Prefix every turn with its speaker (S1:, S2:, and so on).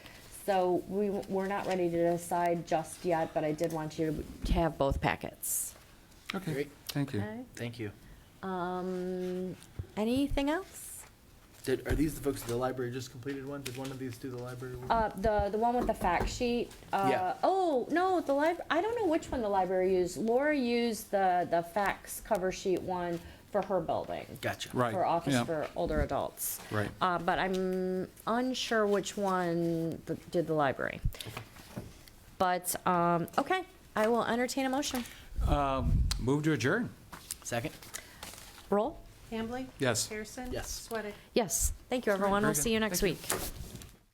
S1: So we, we're not ready to decide just yet, but I did want you to have both packets.
S2: Okay,
S3: Great.
S2: thank you.
S1: Okay.
S3: Thank you.
S1: Um, anything else?
S3: Did, are these the folks at the library just completed one? Did one of these do the library? one?
S1: Uh, the, the one with the fact sheet, uh,
S3: Yeah.
S1: oh, no, the lib, I don't know which one the library used. Laura used the, the facts cover sheet one for her building.
S3: Gotcha.
S2: Right.
S1: For Office
S2: yeah,
S1: for Older Adults.
S2: Right.
S1: Uh, but I'm unsure which one th- did the library. But, um, okay, I will entertain a motion.
S2: Um, Move to adjourn.
S3: Second?
S1: Roll?
S4: Hambley?
S2: Yes.
S4: Harrison?
S3: Yes.
S4: Sweattick?
S1: Yes, thank you, everyone.
S2: very
S1: We'll see
S2: good.
S1: you next
S2: Thank
S1: week.